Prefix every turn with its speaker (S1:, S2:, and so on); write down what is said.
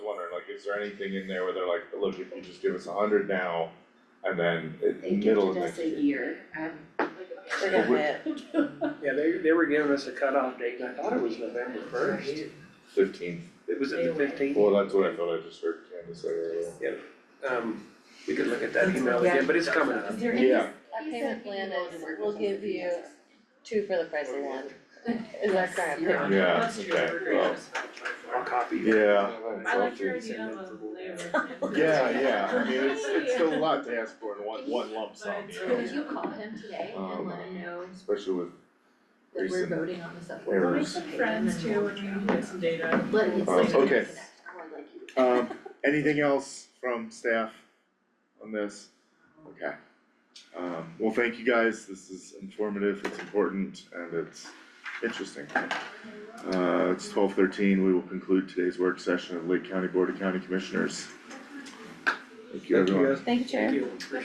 S1: is there anything in there where they're like, look, if you just give us a hundred now, and then it-
S2: They
S1: middle
S2: gifted
S1: of next
S2: us a
S1: year.
S2: year, um,
S3: Look at that.
S4: Yeah, they, they were giving us a cutoff date, and I thought it was November first.
S1: Fifteenth,
S4: It was at the fifteenth.
S1: well, that's what I thought, I just heard Candace say earlier.
S4: Um, we could look at that email again, but it's coming up.
S2: is there any?
S1: Yeah,
S3: Our payment plan is, we'll give you
S2: Yes.
S3: two for the price of one, is our
S2: Yes.
S3: current payment.
S1: yeah,
S5: That's your
S1: okay, well,
S5: agreement.
S4: I'll copy you.
S1: yeah,
S5: I like your idea of a labor.
S1: yeah, yeah, I mean, it's it's still a lot to ask for in one one lump sum, you know?
S5: But
S6: Could you call him today and
S1: Um,
S6: let him know
S1: Especially with
S6: that we're
S1: recent
S6: voting on the supplemental?
S5: We'll make
S1: errors.
S5: some friends too when we get some data.
S6: Let him.
S1: Uh, okay.
S6: Or like you.
S1: Um, anything else from staff on this? Okay. Um, well, thank you guys, this is informative, it's important, and it's interesting. Uh, it's twelve thirteen, we will conclude today's work session of Lake County Board of County Commissioners. Thank you,
S4: Thank you
S1: everyone.
S4: guys.
S3: Thank you, Chair.
S4: Thank you. Appreciate